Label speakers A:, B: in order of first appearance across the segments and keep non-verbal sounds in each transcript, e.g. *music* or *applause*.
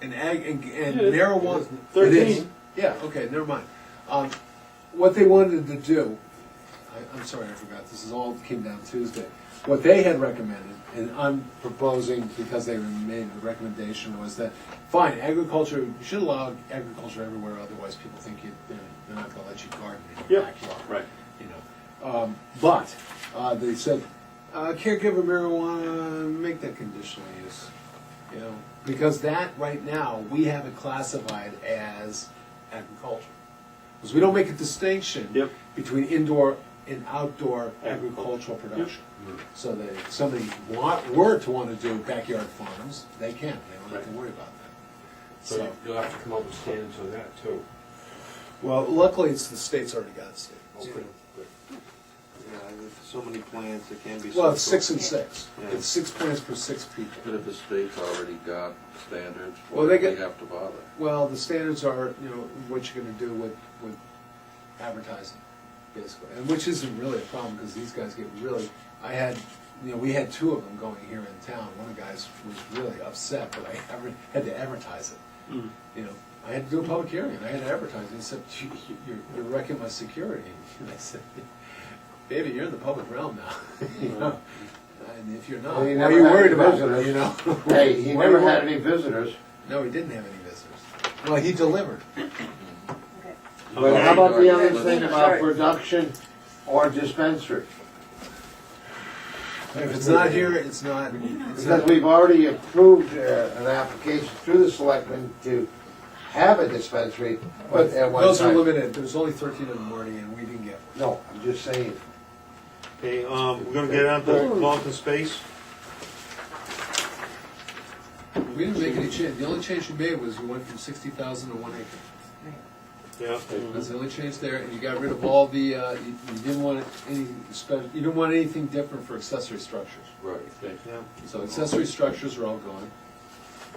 A: and ag, and, and
B: Yeah,
A: marijuana.
B: thirteen.
A: It is. Yeah, okay, never mind. Um, what they wanted to do, I, I'm sorry, I forgot, this is all came down Tuesday. What they had recommended, and I'm proposing because they made the recommendation, was that, fine, agriculture, you should allow agriculture everywhere, otherwise people think you, they're, they're not gonna let you garden in your
B: Yeah,
A: backyard.
B: right.
A: You know, um, but, uh, they said, uh, caregiver marijuana, make that conditional use. You know, because that, right now, we have it classified as agriculture. Because we don't make a distinction
B: Yep.
A: between indoor and outdoor
B: Agriculture.
A: agricultural production. Mm-hmm. So that if somebody want, were to want to do backyard farms, they can, they don't have to
B: Right.
A: worry about that.
C: So
A: So,
C: you'll have to come up with standards on that too.
A: well, luckily, it's, the state's already got it.
C: Good. Good.
D: Yeah, with so many plants, it can be.
A: Well, it's
D: so-
A: six and six,
D: Yeah.
A: it's six plants per six people.
E: But if the state's already got standards,
A: Well,
E: why
A: they
E: do we
A: get-
E: have to bother?
A: Well, the standards are, you know, what you're gonna do with, with advertising, basically, and which isn't really a problem, because these guys get really, I had, you know, we had two of them going here in town, one of the guys was really upset that I *laughs* ever, had to advertise it. You know, I had to do a public hearing, and I had to advertise, it. he said, "You- you- you're, you're wrecking my security, *laughs* and I said, baby, you're in the public realm now, *laughs* you know, and if you're not,
F: Well,
A: why
F: he
A: are
F: never
A: you
F: had
A: worried
F: any
A: about it,
F: visitors.
A: you know?
F: Hey, he
A: Why are you
F: never
A: worried-
F: had any visitors.
A: no, he didn't have any visitors. Well, he delivered.
G: Okay.
F: But how about the other
E: Let's-
F: thing about production or dispensary?
A: If it's not here, it's not. It's
F: Because
A: not
F: we've already approved uh, an application through the selectmen to have a dispensary, but at one time.
A: those are limited. There's only 13 of them already, and we didn't get one.
F: No, I'm just saying.
D: Okay, um, we're gonna get on to Vulcan Space.
A: We didn't make any change. The only change we made was you went from 60,000 to one acre.
F: Mm-hmm.
D: Yeah.
A: That's the only change there, and you got rid of all the. Uh, you, you didn't want any. spe- You didn't want anything different for accessory structures.
E: Right.
D: Yeah.
A: So accessory structures are all gone.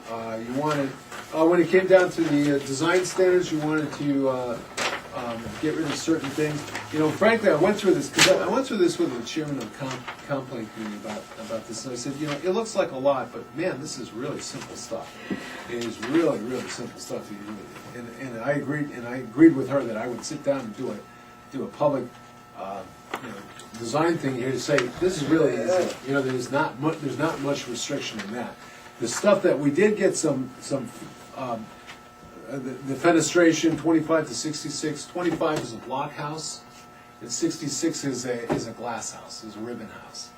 A: Uh, you wanted, uh, when it came down to the uh, design standards, you wanted to, uh, um, get rid of certain things. You know, frankly, I went through this, cause I, I went through this with the chairman of the com- complaint committee about, about this, and I said, you know, it looks like a lot, but man, this is really simple stuff. It is really, really simple stuff to do. And, and I agreed, and I agreed with her that I would sit down and do a, do a public, uh, you know, design thing here to say, this is really easy. You know, there's not mu, there's not much restriction in that. The stuff that, we did get some, some, um, uh, the the fenestration, twenty-five to sixty-six, twenty-five is a block house, and sixty-six is a, is a glass house, is a ribbon house.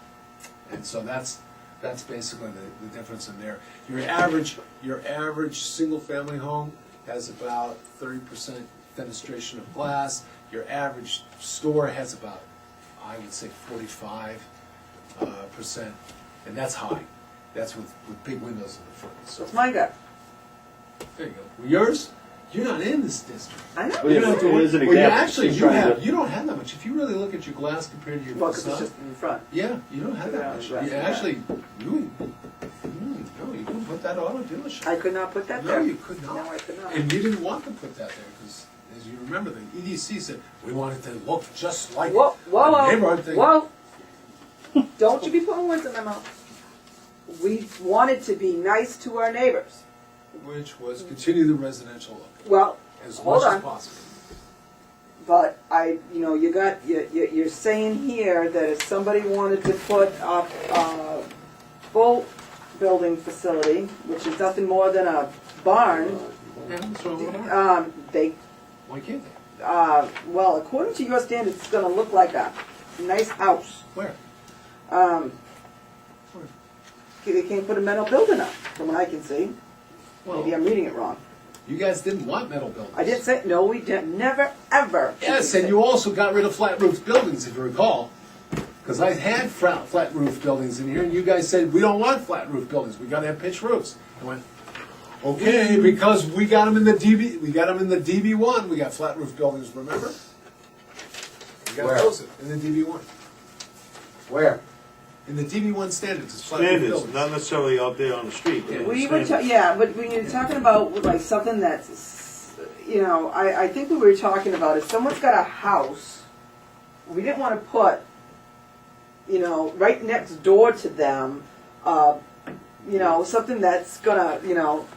A: And so that's, that's basically the, the difference in there. Your average, your average single-family home has about thirty percent fenestration of glass. Your average store has about, I would say forty-five uh, percent, and that's high. That's with, with big windows in the front, so.
G: It's my gut.
A: There you go. Yours? You're not in this district.
G: I know.
B: Well, yeah,
A: You don't have to
B: it
A: worry-
B: is an
A: well, you
B: example.
A: actually,
B: She's
A: you
B: trying
A: have,
B: to-
A: you don't have that much. If you really look at your glass compared to your
G: Well, 'cause it's
A: facade,
G: just in front.
A: yeah, you don't have that
G: Yeah,
A: much.
G: right,
A: You
G: yeah.
A: actually, you, mm, no, you couldn't put that auto dealership.
G: I could not put that
A: No,
G: there.
A: you could not.
G: No, I could not.
A: And you didn't want to put that there, because as you remember, the EDC said, we want it to look just like
G: Whoa, whoa,
A: the
G: whoa,
A: neighborhood thing.
G: whoa. Don't you be putting words in my mouth. We wanted to be nice to our neighbors.
A: Which was continue the residential look
G: Well,
A: as
G: Hold
A: much as
G: on.
A: possible.
G: but I, you know, you got, you, you, you're saying here that if somebody wanted to put up a full building facility, which is nothing more than a barn,
A: Yeah, that's what I want to know.
G: um, they
A: Why can't they?
G: uh, well, according to your standards, it's gonna look like a nice house.
A: Where?
G: Um,
A: Where?
G: they can't put a metal building up, from what I can see. Maybe I'm reading it wrong.
A: You guys didn't want metal buildings.
G: I did say, no, we didn't, never, ever.
A: Yes, and you also got rid of flat roof buildings, if you recall. Because I had flat, flat roof buildings in here, and you guys said, we don't want flat roof buildings, we gotta have pitched roofs. I went, okay, because we got them in the DB, we got them in the DB one, we got flat roof buildings, remember? We got
F: Where?
A: those in in the DB one.
F: Where?
A: In the DB one standards, it's flat roof
D: Standards, not
A: buildings.
D: necessarily out there on the street. but
G: We were, ta-
D: standards.
G: yeah, but when you're talking about like something that's, s- you know, I, I think we were talking about if someone's got a house, we didn't wanna put, you know, right next door to them, uh, you know, something that's gonna, you know,